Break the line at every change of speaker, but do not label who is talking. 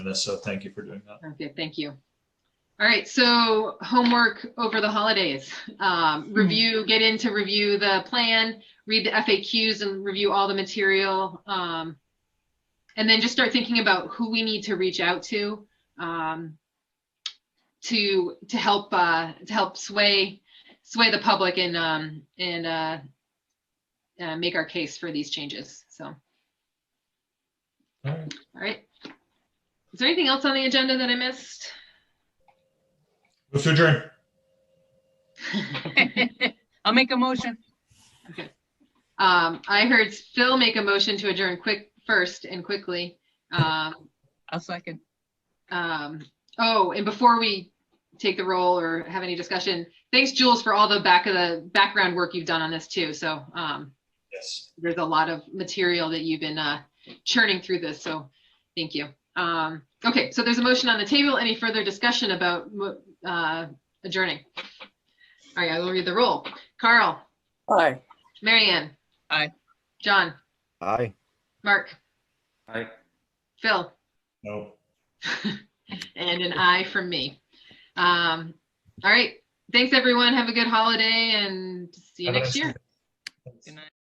us, so thank you for doing that.
Okay, thank you. All right, so homework over the holidays. Um, Review, get in to review the plan, read the FAQs and review all the material. um, And then just start thinking about who we need to reach out to um, to, to help, uh, to help sway, sway the public and, um, and uh, uh, make our case for these changes. So, all
All right.
right. Is there anything else on the agenda that I missed?
Move to adjourn.
I'll make a motion.
Um, I heard Phil make a motion to adjourn quick, first and quickly. Um,
I'll second.
um, oh, and before we take the roll or have any discussion, thanks Jules for all the back of the background work you've done on this too. So, um,
Yes.
there's a lot of material that you've been, uh, churning through this. So thank you. Um, okay, so there's a motion on the table. Any further discussion about, mo- uh, adjourning? All right, I will read the roll. Carl,
Aye.
Marianne, Ann.
Aye.
John,
Aye.
Mark,
Aye.
Phil.
No.
and an eye from me. Um, all right. Thanks, everyone. Have a good holiday and see you
Have a
next
nice
year.
day.
Good night.